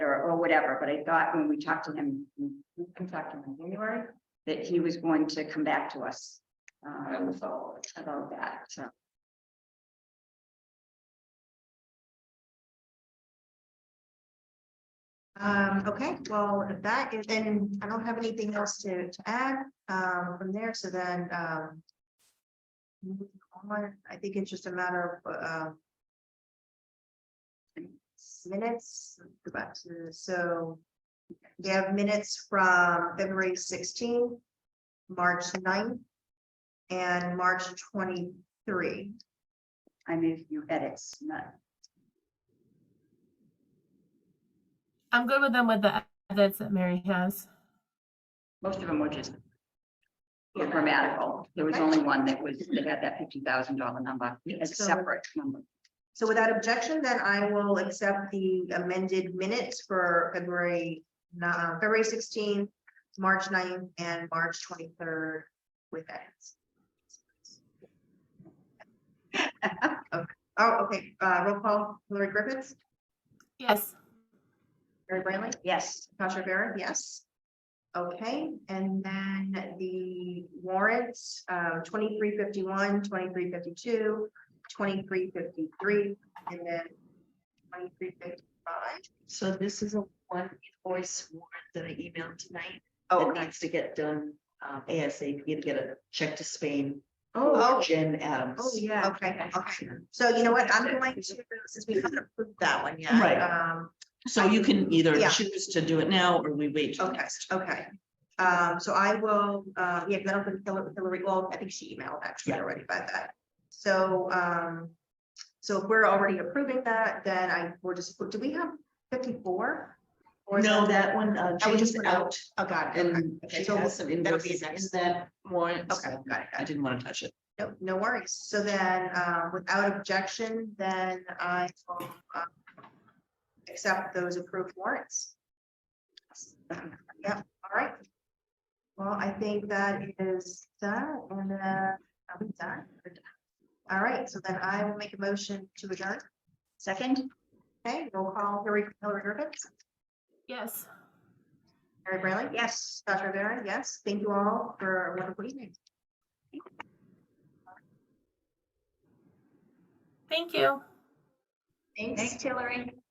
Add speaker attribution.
Speaker 1: or whatever, but I thought when we talked to him, we talked to him in January, that he was going to come back to us. Um, about that, so.
Speaker 2: Um, okay, well, if that is, then I don't have anything else to, to add, um, from there, so then, um. moving on, I think it's just a matter of, uh. Minutes, go back to, so. We have minutes from February sixteen, March 9th, And March twenty-three,
Speaker 1: I move you edits, not,
Speaker 3: I'm good with them with the edits that Mary has.
Speaker 1: most of them were just. were grammatical, there was only one that was, that had that fifty thousand dollar number, a
Speaker 2: So-
Speaker 1: separate number.
Speaker 2: So without objection, then I will accept the amended minutes for February, ni- uh, February sixteenth, March 9th, and March twenty-third with edits. Okay. Oh, okay, uh, roll call, Hillary Griffiths,
Speaker 3: Yes,
Speaker 2: Mary Brantley,
Speaker 1: Yes,
Speaker 2: Tasha Vera, yes. Okay, and then the warrants, um, 2351, 2352, 2353, and then twenty-three fifty-five.
Speaker 4: So this is a one invoice warrant that I emailed tonight
Speaker 2: Oh,
Speaker 4: that needs to get done um, ASAP to get a check to Spain.
Speaker 2: Oh,
Speaker 4: for Jen Adams.
Speaker 2: oh, yeah, okay, okay. So you know what, I'm going to, since we haven't approved that one yet.
Speaker 4: Right.
Speaker 2: Um,
Speaker 4: So you can either
Speaker 2: Yeah.
Speaker 4: choose to do it now or we wait. till
Speaker 2: okay,
Speaker 4: next.
Speaker 2: okay. Um, so I will, uh, yeah, that'll be Hillary- Hillary, well, I think she emailed actually
Speaker 4: Yeah.
Speaker 2: already about that. So, um, so if we're already approving that, then I, we're just, do we have fifty-four? Or is
Speaker 4: No, that one, uh,
Speaker 2: Oh, we just
Speaker 4: Jane's
Speaker 2: went out. Oh,
Speaker 4: out
Speaker 2: got it. okay.
Speaker 4: and
Speaker 2: Okay,
Speaker 4: she
Speaker 2: so
Speaker 4: has some
Speaker 2: that'll be
Speaker 4: invoices in
Speaker 2: next.
Speaker 4: that warrant.
Speaker 2: Okay,
Speaker 4: so
Speaker 2: got it, got
Speaker 4: I
Speaker 2: it.
Speaker 4: didn't want to touch it.
Speaker 2: No, no worries. So then, uh, without objection, then I will, uh, accept those approved warrants. Yep, all right. Well, I think that is done and, uh, I'm done. We're done. All right, so then I will make a motion to adjourn.
Speaker 1: second,
Speaker 2: Okay, roll call, Hillary, Hillary Griffiths,
Speaker 3: yes.
Speaker 2: Mary Branley,
Speaker 1: yes.
Speaker 2: Dr. Rivera, yes. Thank you all for a wonderful evening.
Speaker 3: Thank you.
Speaker 2: Thanks. Hillary.